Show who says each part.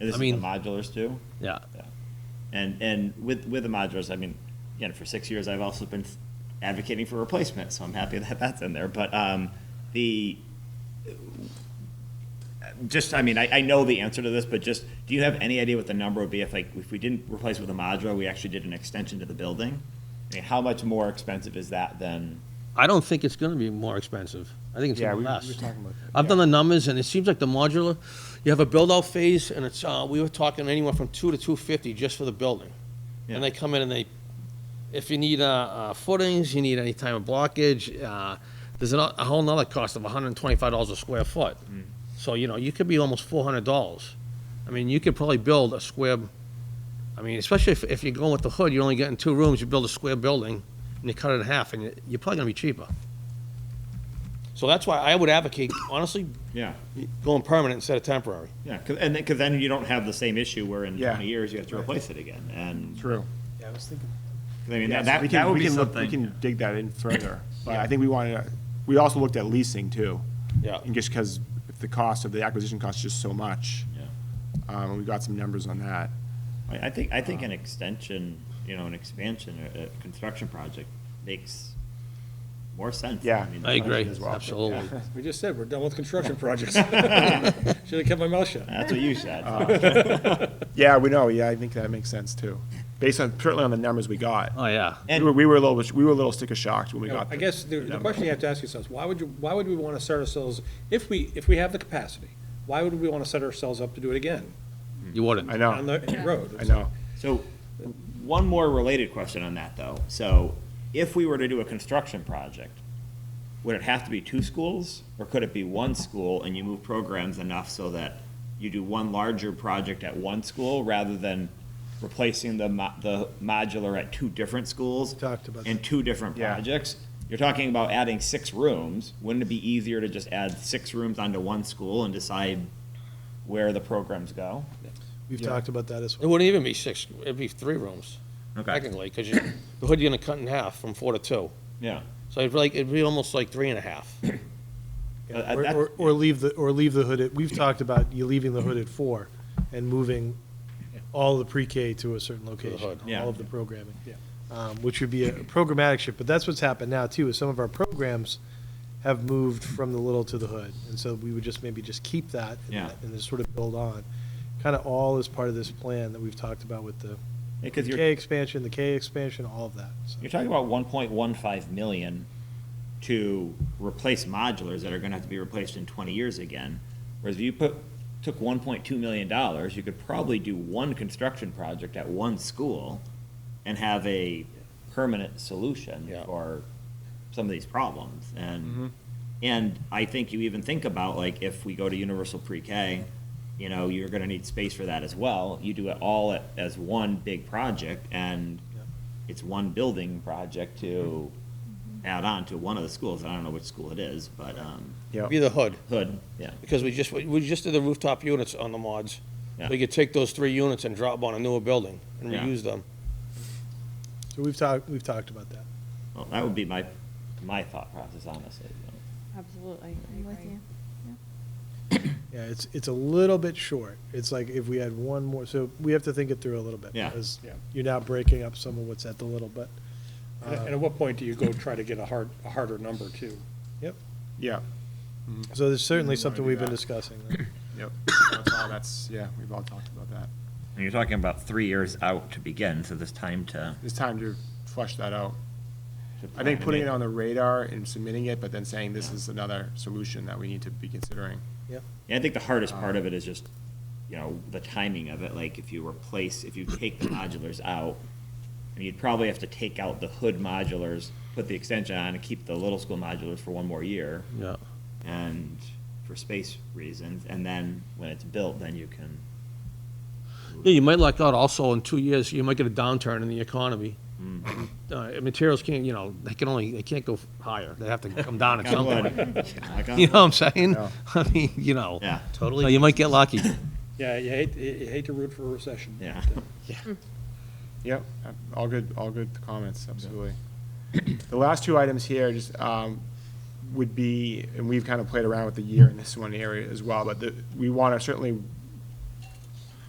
Speaker 1: And this
Speaker 2: I mean-
Speaker 1: is the modulars too.
Speaker 2: Yeah.
Speaker 1: Yeah. And and with with the modulars, I mean, again, for six years, I've also been advocating for replacement, so I'm happy that that's in there. But um, the just, I mean, I, I know the answer to this, but just, do you have any idea what the number would be if like if we didn't replace with a modular, we actually did an extension to the building? I mean, how much more expensive is that than?
Speaker 2: I don't think it's gonna be more expensive. I think it's
Speaker 3: Yeah,
Speaker 2: gonna
Speaker 3: we
Speaker 2: be
Speaker 3: we were
Speaker 2: less.
Speaker 3: talking about. that.
Speaker 2: I've done the numbers, and it seems like the modular, you have a build-out phase, and it's, uh, we were talking anywhere from two to two fifty just for the building.
Speaker 1: Yeah.
Speaker 2: And they come in and they, if you need, uh, uh, footings, you need any type of blockage, uh, there's a, a whole nother cost of hundred and twenty-five dollars a square foot.
Speaker 3: Mm.
Speaker 2: So, you know, you could be almost four hundred dollars. I mean, you could probably build a square, I mean, especially if, if you're going with the hood, you're only getting two rooms, you build a square building, and you cut it in half, and you- you're probably gonna be cheaper. So that's why I would advocate, honestly,
Speaker 1: Yeah,
Speaker 2: going permanent instead of temporary.
Speaker 1: yeah, 'cause- and because then you don't have the same issue where in
Speaker 3: Yeah.
Speaker 1: 20 years you have to replace it again, and
Speaker 3: True.
Speaker 1: 'cause I mean
Speaker 3: Yeah,
Speaker 1: that,
Speaker 3: so
Speaker 1: that,
Speaker 3: we
Speaker 1: that
Speaker 3: can,
Speaker 1: would
Speaker 3: we
Speaker 1: be
Speaker 3: can look, we
Speaker 1: something.
Speaker 3: can dig that in further, but I think we wanted, to- we also looked at leasing too.
Speaker 2: Yeah.
Speaker 3: And just because the cost of the acquisition cost is just so much,
Speaker 1: Yeah.
Speaker 3: um, and we got some numbers on that.
Speaker 1: I, I think, I
Speaker 3: Um,
Speaker 1: think an extension, you know, an expansion, a, a construction project makes more sense.
Speaker 3: Yeah.
Speaker 1: mean,
Speaker 2: I agree,
Speaker 3: as well.
Speaker 2: absolutely.
Speaker 4: We just said, we're done with construction projects. Should have kept my mouth shut.
Speaker 1: That's what you said.
Speaker 3: Uh, Yeah, we know, yeah, I think that makes sense too, based on, certainly on the numbers we got.
Speaker 2: Oh, yeah.
Speaker 3: We were, we were a little, we were a little sticker shocked when we got.
Speaker 4: I guess the, the question you have to ask yourself is, why would you, why would we want to set ourselves, if we, if we have the capacity, why would we want to set ourselves up to do it again
Speaker 2: You wouldn't.
Speaker 3: I
Speaker 4: on
Speaker 3: know,
Speaker 4: the road?
Speaker 3: Oh. I know.
Speaker 1: So, one more related question on that, though. So, if we were to do a construction project, would it have to be two schools, or could it be one school and you move programs enough so that you do one larger project at one school rather than replacing the mo- the modular at two different schools?
Speaker 4: Talked about
Speaker 1: In two different
Speaker 3: Yeah.
Speaker 1: projects? You're talking about adding six rooms. Wouldn't it be easier to just add six rooms onto one school and decide where the programs go?
Speaker 5: We've talked about that as
Speaker 2: It
Speaker 5: well.
Speaker 2: wouldn't even be six, it'd be three rooms, technically, because you, the hood you're gonna cut in half from four to two.
Speaker 1: Yeah.
Speaker 2: So it'd be like, it'd be almost like three and a half.
Speaker 1: Uh, uh,
Speaker 5: Or-
Speaker 1: that-
Speaker 5: Or, or leave the, or leave the hood at, we've talked about you leaving the hood at four and moving all the pre-K to a certain location,
Speaker 2: hood.
Speaker 1: Yeah.
Speaker 5: all of the programming.
Speaker 4: Yeah.
Speaker 5: Um, which would be a programmatic shift, but that's what's happened now too, is some of our programs have moved from the little to the hood. And so we would just maybe just keep that. and-
Speaker 1: Yeah.
Speaker 5: And just sort of build on. Kind of all is part of this plan that we've talked about with the
Speaker 1: Because
Speaker 5: K
Speaker 1: you're,
Speaker 5: expansion, the K expansion, all of that. so.
Speaker 1: you're talking about one point one five million to replace modulars that are gonna have to be replaced in twenty years again. Whereas if you put, took one point two million dollars, you could probably do one construction project at one school and have a permanent solution
Speaker 2: Yeah.
Speaker 1: for some of these problems. And, and I think you even think about, like, if we go to universal pre-K, you know, you're gonna need space for that as well. You do it all at- as one big project, and
Speaker 5: Yeah.
Speaker 1: it's one building project to
Speaker 3: Mm-hmm.
Speaker 1: add on to one of the schools. I don't know which school it is, but, um,
Speaker 3: Yeah,
Speaker 2: Be the hood,
Speaker 1: Hood, yeah.
Speaker 2: because we just, we- we just did the rooftop units on the mods.
Speaker 1: Yeah.
Speaker 2: We could take those three units and drop 'em on a newer building and
Speaker 1: Yeah.
Speaker 2: reuse them.
Speaker 5: So we've talked, we've talked about that.
Speaker 1: Well, that would be my, my thought process, honestly.
Speaker 6: Absolutely.
Speaker 7: I'm with you.
Speaker 5: Yeah, it's, it's a little bit short. It's like if we had one more, so we have to think it through a little bit.
Speaker 1: Yeah.
Speaker 5: Because
Speaker 4: Yeah.
Speaker 5: you're now breaking up some of what's at the little, but,
Speaker 4: And
Speaker 5: uh,
Speaker 4: at- and at what point do you go try to get a hard, a harder number too?
Speaker 5: yep.
Speaker 3: yeah,
Speaker 5: So there's certainly
Speaker 3: wanna
Speaker 5: something
Speaker 3: do
Speaker 5: we've been
Speaker 3: that.
Speaker 5: discussing. right?
Speaker 3: yep. That's all- That's, yeah, we've all talked about that.
Speaker 1: And you're talking about three years out to begin, so there's time to.
Speaker 3: It's time to flush that out. I think putting it on the radar and submitting it, but then saying this is another solution that we need to be considering.
Speaker 5: Yep.
Speaker 1: Yeah, I think the hardest
Speaker 3: Uh,
Speaker 1: part of it is just, you know, the timing of it, like if you replace, if you take the modulars out, and you'd probably have to take out the hood modulars, put the extension on, and keep the little school modulars for one more year,
Speaker 2: Yeah.
Speaker 1: and for space reasons, and then when it's built, then you can.
Speaker 2: Yeah, you might luck out also in two years, you might get a downturn in the economy. Uh, materials can't, you know, they can only, they can't go higher. They have to come down at
Speaker 1: Knock on
Speaker 2: some point.
Speaker 1: wood. Knock on
Speaker 2: You
Speaker 1: wood.
Speaker 2: know what I'm saying?
Speaker 3: Yeah.
Speaker 2: I mean, you know.
Speaker 1: Yeah.
Speaker 2: Totally. you might get lucky.
Speaker 4: Yeah, you hate, you hate to root for a recession.
Speaker 1: Yeah.
Speaker 4: but, uh,
Speaker 3: Yep, uh, all good, all good comments, absolutely. The last two items here just um, would be, and we've kind of played around with the year in this one area as well, but the- we want to certainly